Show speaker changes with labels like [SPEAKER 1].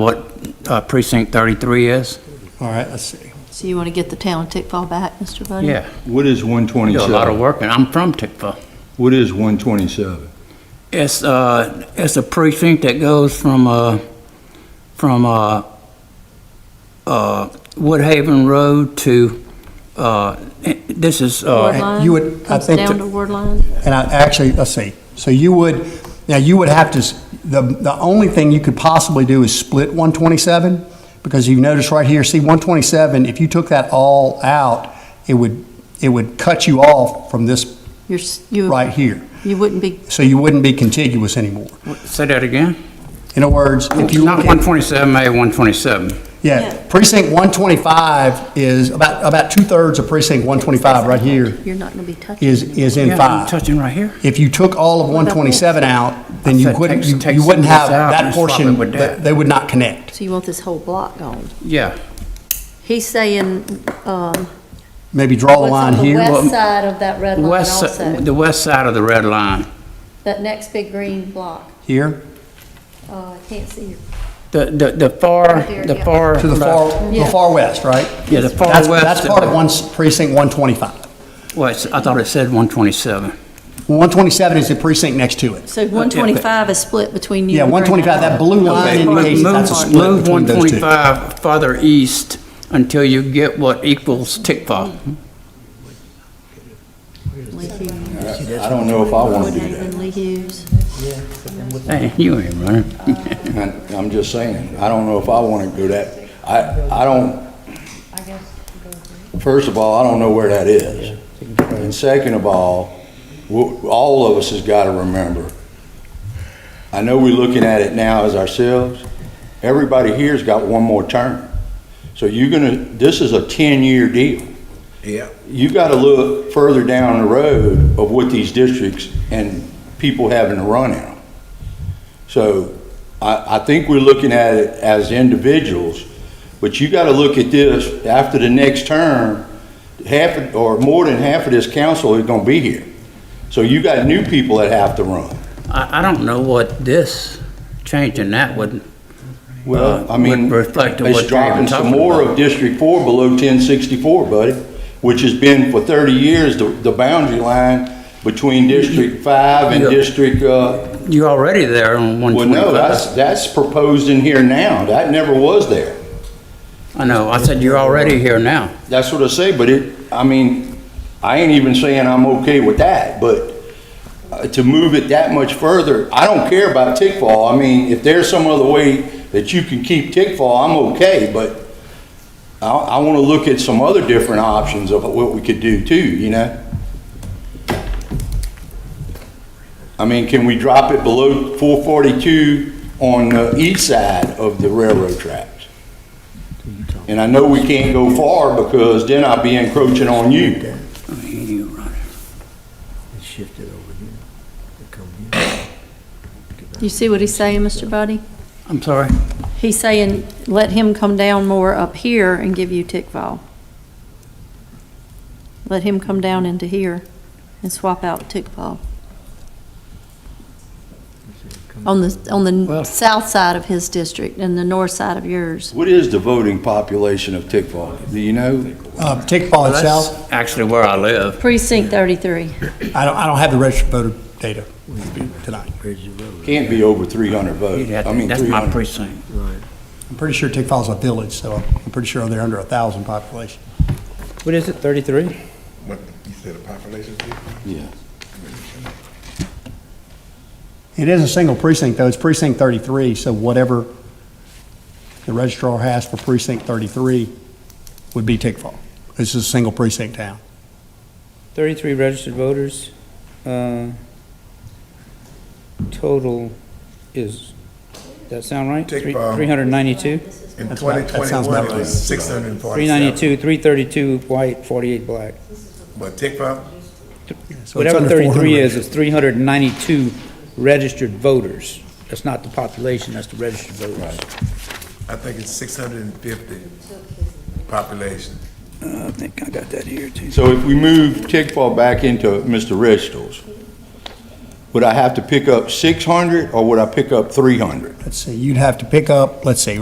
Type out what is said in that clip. [SPEAKER 1] what uh, precinct 33 is?
[SPEAKER 2] All right, let's see.
[SPEAKER 3] So you want to get the town Tickfall back, Mr. Buddy?
[SPEAKER 1] Yeah,
[SPEAKER 4] What is
[SPEAKER 1] we do a lot of
[SPEAKER 4] 127?
[SPEAKER 1] work, and I'm from Tickfa.
[SPEAKER 4] What is 127?
[SPEAKER 1] It's, uh, it's a precinct that goes from, uh, from, uh, uh, Woodhaven Road to, uh, this is,
[SPEAKER 3] Ward
[SPEAKER 1] uh,
[SPEAKER 2] you
[SPEAKER 3] line,
[SPEAKER 2] would- I
[SPEAKER 3] comes
[SPEAKER 2] think
[SPEAKER 3] down
[SPEAKER 2] that-
[SPEAKER 3] to word line?
[SPEAKER 2] And I, actually, let's see. So you would, now you would have to, s- the, the only thing you could possibly do is split 127, because you notice right here, see 127, if you took that all out, it would, it would cut you off from this
[SPEAKER 3] You're, s- you.
[SPEAKER 2] right here.
[SPEAKER 3] You wouldn't be,
[SPEAKER 2] So you wouldn't be contiguous anymore.
[SPEAKER 1] say that again?
[SPEAKER 2] In other words, if you.
[SPEAKER 1] Not 127, maybe 127.
[SPEAKER 3] Yeah.
[SPEAKER 2] Yeah, precinct 125 is about, about two-thirds of precinct 125 right here
[SPEAKER 3] you're not going to be touching.
[SPEAKER 2] is, is in
[SPEAKER 1] Yeah, I'm
[SPEAKER 2] five.
[SPEAKER 1] touching right here.
[SPEAKER 2] If you took all of 127 out, then you
[SPEAKER 1] said
[SPEAKER 2] wouldn't,
[SPEAKER 1] take-
[SPEAKER 2] you
[SPEAKER 1] take
[SPEAKER 2] you wouldn't
[SPEAKER 1] some of
[SPEAKER 2] have
[SPEAKER 1] this out and swap
[SPEAKER 2] that
[SPEAKER 1] it
[SPEAKER 2] portion,
[SPEAKER 1] with
[SPEAKER 2] that-
[SPEAKER 1] that.
[SPEAKER 2] they would not connect.
[SPEAKER 3] So you want this whole block gone?
[SPEAKER 1] Yeah.
[SPEAKER 3] He's saying, um,
[SPEAKER 2] Maybe draw a
[SPEAKER 3] what's
[SPEAKER 2] line
[SPEAKER 3] on the
[SPEAKER 2] here.
[SPEAKER 1] Well,
[SPEAKER 3] west side of that red
[SPEAKER 1] The
[SPEAKER 3] line
[SPEAKER 1] west, si-
[SPEAKER 3] also?
[SPEAKER 1] the west side of the red line.
[SPEAKER 3] That next big green block?
[SPEAKER 2] Here,
[SPEAKER 3] Uh, I can't see.
[SPEAKER 1] The, the, the far,
[SPEAKER 3] Right there,
[SPEAKER 1] the
[SPEAKER 3] yeah.
[SPEAKER 1] far.
[SPEAKER 2] to the far, the
[SPEAKER 3] Yeah.
[SPEAKER 2] far west, right?
[SPEAKER 1] Yeah, the far
[SPEAKER 2] That's-
[SPEAKER 1] west.
[SPEAKER 2] That's part of one s- precinct 125.
[SPEAKER 1] Well, it's- I thought it said 127.
[SPEAKER 2] 127 is the precinct next to it.
[SPEAKER 3] So 125 is split between you
[SPEAKER 2] Yeah,
[SPEAKER 3] and Green
[SPEAKER 2] 125, that blue line
[SPEAKER 3] Okay,
[SPEAKER 1] Move-
[SPEAKER 2] indicates that's a
[SPEAKER 1] move-
[SPEAKER 2] split between those
[SPEAKER 1] Move
[SPEAKER 2] two.
[SPEAKER 1] 125 farther east until you get what equals Tickfa.
[SPEAKER 3] Lee Hughes.
[SPEAKER 4] I don't know if I want to do
[SPEAKER 3] Woodhaven, Lee Hughes.
[SPEAKER 1] Hey, you ain't running.
[SPEAKER 4] that. I- I'm just saying, I don't know if I want to do that. I, I don't, first of all, I don't know where that is. And second of all, wh- all of us has got to remember, I know we're looking at it now as ourselves, everybody here's got one more term. So you're going to, this is a 10-year deal.
[SPEAKER 5] Yeah.
[SPEAKER 4] you got to look further down the road of what these districts and people having to run in them. So I, I think we're looking at it as individuals, but you got to look at this, after the next term, half, of- or more than half of this council is going to be here. So you got new people that have to run.
[SPEAKER 1] I, I don't know what this, changing that would,
[SPEAKER 4] Well,
[SPEAKER 1] Uh,
[SPEAKER 4] I mean,
[SPEAKER 1] would reflect on what
[SPEAKER 4] it's
[SPEAKER 1] you're
[SPEAKER 4] dropping some
[SPEAKER 1] talking
[SPEAKER 4] more
[SPEAKER 1] about.
[SPEAKER 4] of District Four below ten sixty-four, buddy, which has been for thirty years the, the boundary line between District Five and
[SPEAKER 1] Yeah.
[SPEAKER 4] District, uh,
[SPEAKER 1] you're already there on
[SPEAKER 4] well,
[SPEAKER 1] 125.
[SPEAKER 4] no, that's, that's proposed in here now. That never was there.
[SPEAKER 1] I know, I said you're already here now.
[SPEAKER 4] That's what I say, but it, I mean, I ain't even saying I'm okay with that, but uh, to move it that much further, I don't care about Tickfall. I mean, if there's some other way that you can keep Tickfall, I'm okay, but I, I want to look at some other different options of what we could do too, you know? I mean, can we drop it below 442 on the east side of the railroad tracks? And I know we can't go far because then I'll be encroaching on you.
[SPEAKER 1] I mean, you run it.
[SPEAKER 5] It's shifted over here. It come here.
[SPEAKER 3] You see what he's saying, Mr. Buddy?
[SPEAKER 1] I'm sorry.
[SPEAKER 3] He's saying, let him come down more up here and give you Tickfall. Let him come down into here and swap out Tickfall. On the, on the
[SPEAKER 1] Well-
[SPEAKER 3] south side of his district and the north side of yours.
[SPEAKER 4] What is the voting population of Tickfall? Do you know?
[SPEAKER 2] Uh, Tickfall
[SPEAKER 1] Well,
[SPEAKER 2] itself,
[SPEAKER 1] That's actually where I live.
[SPEAKER 3] Precinct 33.
[SPEAKER 2] I don't, I don't have the registered voter data with me tonight.
[SPEAKER 5] Bridge the road.
[SPEAKER 4] Can't be over 300
[SPEAKER 1] You'd
[SPEAKER 4] votes.
[SPEAKER 1] have
[SPEAKER 4] I
[SPEAKER 1] to-
[SPEAKER 4] mean,
[SPEAKER 1] That's my
[SPEAKER 4] 300.
[SPEAKER 1] precinct.
[SPEAKER 5] Right.
[SPEAKER 2] I'm pretty sure Tickfall's a village, so I'm pretty sure they're under a 1,000 population.
[SPEAKER 6] What is it, 33?
[SPEAKER 7] What, you said a population?
[SPEAKER 4] Yeah.
[SPEAKER 2] It is a single precinct, though. It's precinct 33, so whatever the registrar has for precinct 33 would be Tickfall. This is a single precinct town.
[SPEAKER 6] 33 registered voters. uh, Total is, that sound right?
[SPEAKER 7] Take
[SPEAKER 6] Three-
[SPEAKER 2] uh,
[SPEAKER 7] bomb.
[SPEAKER 6] 392?
[SPEAKER 7] In
[SPEAKER 2] That's right. That sounds
[SPEAKER 7] 2021, it
[SPEAKER 2] about right.
[SPEAKER 7] was 647.
[SPEAKER 6] 392, 332 white, 48 black.
[SPEAKER 7] But TICFA,
[SPEAKER 2] So it's
[SPEAKER 6] Whatever
[SPEAKER 2] under
[SPEAKER 6] 33
[SPEAKER 2] 400.
[SPEAKER 6] is, is 392 registered voters. That's not the population, that's the registered voters.
[SPEAKER 7] I think it's 650 population.
[SPEAKER 6] Uh, I think I got that here, too.
[SPEAKER 4] So if we move Tickfall back into Mr. Registral's, would I have to pick up 600 or would I pick up 300?
[SPEAKER 2] Let's see, you'd have to pick up, let's see,